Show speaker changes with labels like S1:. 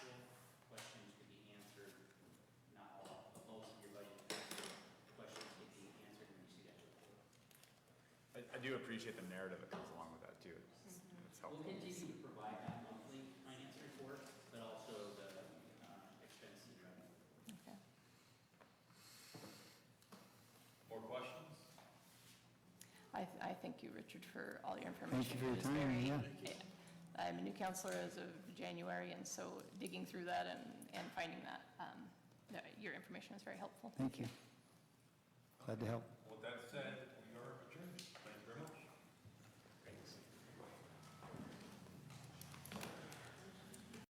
S1: do appreciate the narrative that comes along with that too. It's it's
S2: We'll
S1: helpful.
S2: continue to provide that monthly finance report, but also the uh, expense and revenue.
S3: Okay.
S4: More questions?
S3: I, th- I thank you, Richard, for all your information.
S5: Thank you for your
S3: It was
S5: time,
S3: very-
S5: yeah.
S3: I'm a new counselor as of January, and so digging through that and, and finding that, um, no, your information was very helpful.
S5: Thank you. Glad to help.
S4: With that said,